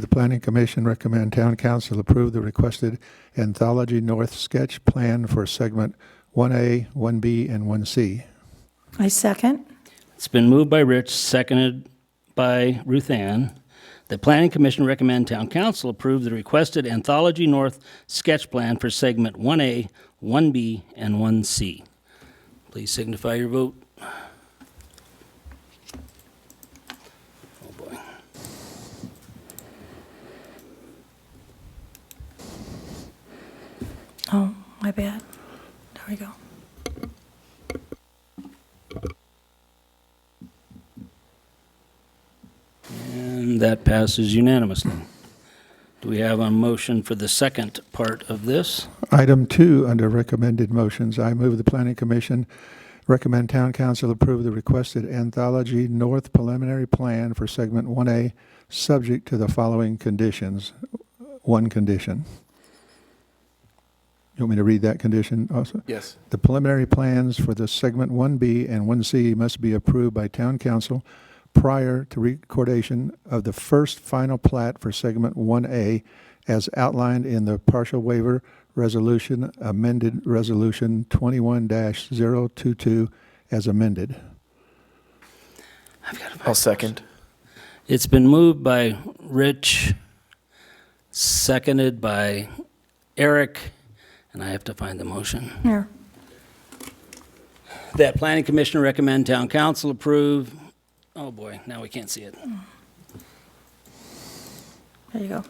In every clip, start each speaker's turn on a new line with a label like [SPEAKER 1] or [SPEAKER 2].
[SPEAKER 1] The Planning Commission recommend Town Council approve the requested Anthology North sketch plan for segment 1A, 1B, and 1C.
[SPEAKER 2] I second.
[SPEAKER 3] It's been moved by Rich, seconded by Ruth Ann. The Planning Commission recommend Town Council approve the requested Anthology North sketch plan for segment 1A, 1B, and 1C. Please signify your vote. Oh, boy.
[SPEAKER 2] Oh, my bad. There we go.
[SPEAKER 3] And that passes unanimously. Do we have a motion for the second part of this?
[SPEAKER 1] Item two, under recommended motions, I move the Planning Commission recommend Town Council approve the requested Anthology North preliminary plan for segment 1A, subject to the following conditions. One condition. You want me to read that condition also?
[SPEAKER 4] Yes.
[SPEAKER 1] The preliminary plans for the segment 1B and 1C must be approved by town council prior to recordation of the first final plat for segment 1A as outlined in the partial waiver resolution amended resolution 21-022 as amended.
[SPEAKER 4] I'll second.
[SPEAKER 3] It's been moved by Rich, seconded by Eric, and I have to find the motion.
[SPEAKER 2] Here.
[SPEAKER 3] That planning commission recommend town council approve. Oh, boy, now we can't see it.
[SPEAKER 2] There you go.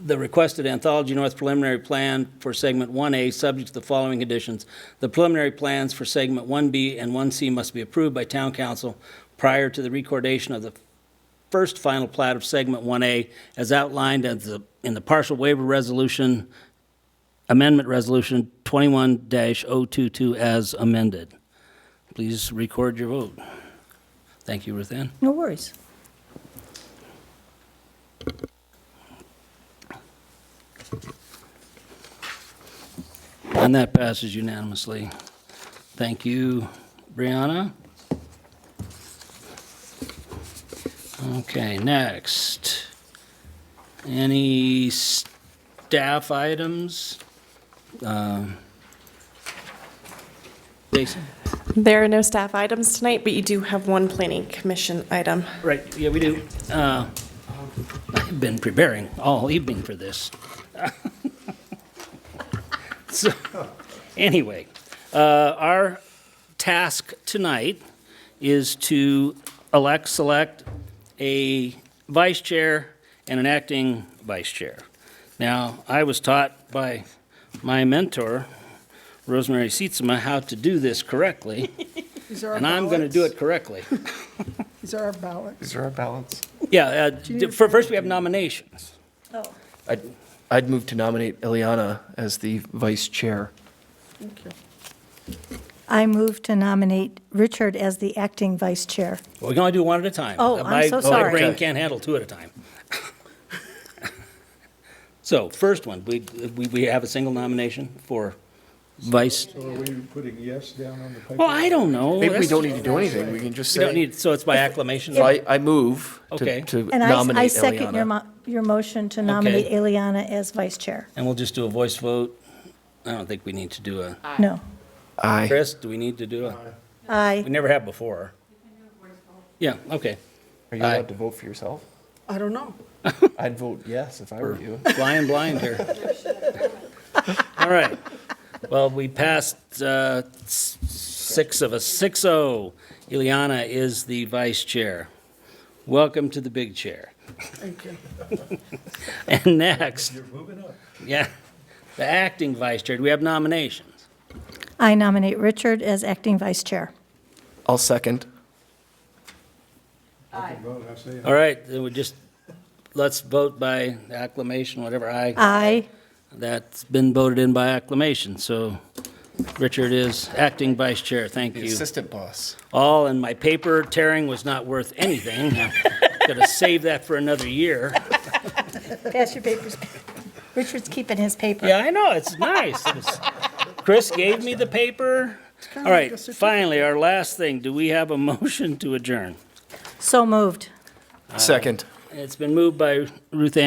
[SPEAKER 3] The requested Anthology North preliminary plan for segment 1A, subject to the following conditions. The preliminary plans for segment 1B and 1C must be approved by town council prior to the recordation of the first final plat of segment 1A as outlined as the- in the partial waiver resolution, amendment resolution 21-022 as amended. Please record your vote. Thank you, Ruth Ann.
[SPEAKER 2] No worries.
[SPEAKER 3] And that passes unanimously. Thank you, Brianna. Okay, next. Any staff items? Um, Jason?
[SPEAKER 5] There are no staff items tonight, but you do have one planning commission item.
[SPEAKER 3] Right, yeah, we do. Uh, I've been preparing all evening for this. So, anyway, uh, our task tonight is to elect, select a vice chair and an acting vice chair. Now, I was taught by my mentor, Rosemary Seetsma, how to do this correctly,
[SPEAKER 6] These are our
[SPEAKER 3] and I'm going to do it correctly.
[SPEAKER 6] ballots. These are our ballots.
[SPEAKER 4] Is there a balance?
[SPEAKER 3] Yeah,
[SPEAKER 6] need
[SPEAKER 3] uh,
[SPEAKER 6] a
[SPEAKER 3] for- first we have nominations.
[SPEAKER 2] Oh,
[SPEAKER 4] I'd, I'd move to nominate Eliana as the vice chair.
[SPEAKER 6] Thank you.
[SPEAKER 2] I move to nominate Richard as the acting vice chair.
[SPEAKER 3] We're going to do one at a time. Uh,
[SPEAKER 2] Oh, I'm
[SPEAKER 3] My-
[SPEAKER 2] so sorry.
[SPEAKER 3] My brain
[SPEAKER 4] Okay.
[SPEAKER 3] can't handle two at a time. So, first one, we, we we have a single nomination for vice,
[SPEAKER 1] So are we putting yes down on the paper?
[SPEAKER 3] well, I don't know.
[SPEAKER 4] Maybe we
[SPEAKER 3] That's-
[SPEAKER 4] don't need to do anything, we can just
[SPEAKER 3] We don't
[SPEAKER 4] say.
[SPEAKER 3] need, so it's by acclamation?
[SPEAKER 4] So I, I move
[SPEAKER 3] Okay.
[SPEAKER 4] to- to
[SPEAKER 2] And I, I
[SPEAKER 4] nominate
[SPEAKER 2] second your,
[SPEAKER 4] Eliana.
[SPEAKER 2] mo- your motion to nominate Eliana as vice chair.
[SPEAKER 3] And we'll just do a voice vote? I don't think we need to do a,
[SPEAKER 2] No.
[SPEAKER 4] Aye.
[SPEAKER 3] Chris, do we need to do a? We
[SPEAKER 2] I,
[SPEAKER 3] never have before. Yeah, okay.
[SPEAKER 4] Are you allowed to vote for yourself?
[SPEAKER 6] I don't know.
[SPEAKER 4] I'd vote yes if I were you.
[SPEAKER 3] flying blind here. All right. Well, we passed uh, s- six of us, 6-0. Ileana is the vice chair. Welcome to the big chair.
[SPEAKER 6] Thank you.
[SPEAKER 3] And next. You're moving up. Yeah, the acting vice chair. Do we have nominations?
[SPEAKER 2] I nominate Richard as acting vice chair.
[SPEAKER 4] I'll second.
[SPEAKER 3] All right, then we just, let's vote by acclamation, whatever I,
[SPEAKER 2] I,
[SPEAKER 3] that's been voted in by acclamation. So Richard is acting vice chair. Thank you.
[SPEAKER 4] assistant boss.
[SPEAKER 3] all, and my paper tearing was not worth anything. Got to save that for another year.
[SPEAKER 2] pass your papers. Richard's keeping his paper.
[SPEAKER 3] Yeah, I know, it's nice. It's- Chris gave me the paper. All
[SPEAKER 6] of like
[SPEAKER 3] right,
[SPEAKER 6] a certificate.
[SPEAKER 3] finally, our last thing, do we have a motion to adjourn?
[SPEAKER 2] So moved.
[SPEAKER 4] Second.
[SPEAKER 3] It's been moved by Ruth Ann